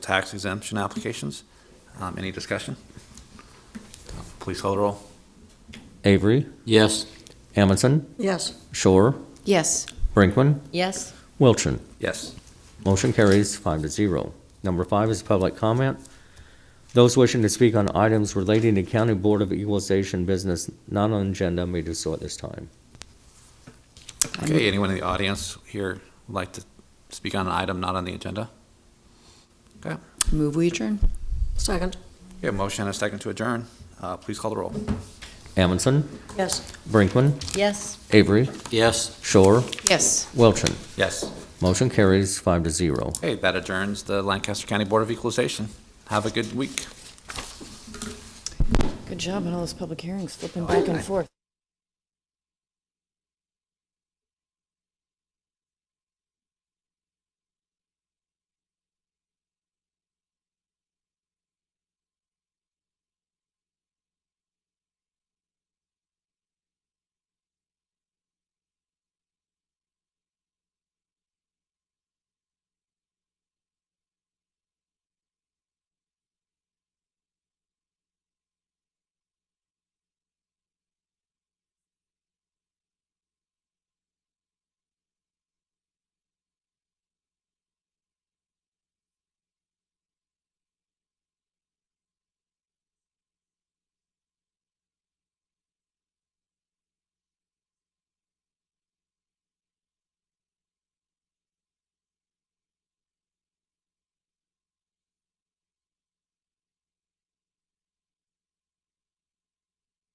tax exemption applications. Um, Any discussion? Please call the roll. Avery, Yes. Amundson, Yes. Shore, Yes. Brinkman, Yes. Wilchin. Yes. Motion carries five to zero. Number five is public comment. Those wishing to speak on items relating to County Board of Equalization business not on agenda may do so at this time. Okay, anyone in the audience here would like to speak on an item not on the agenda? Okay, Move we adjourn? Second. we have a motion and a second to adjourn. Uh, Please call the roll. Amundson, Yes. Brinkman, Yes. Avery, Yes. Shore, Yes. Wilchin. Yes. Motion carries five to zero. Okay, that adjourns the Lancaster County Board of Equalization. Have a good week. Good job on all those public hearings, flipping back and forth.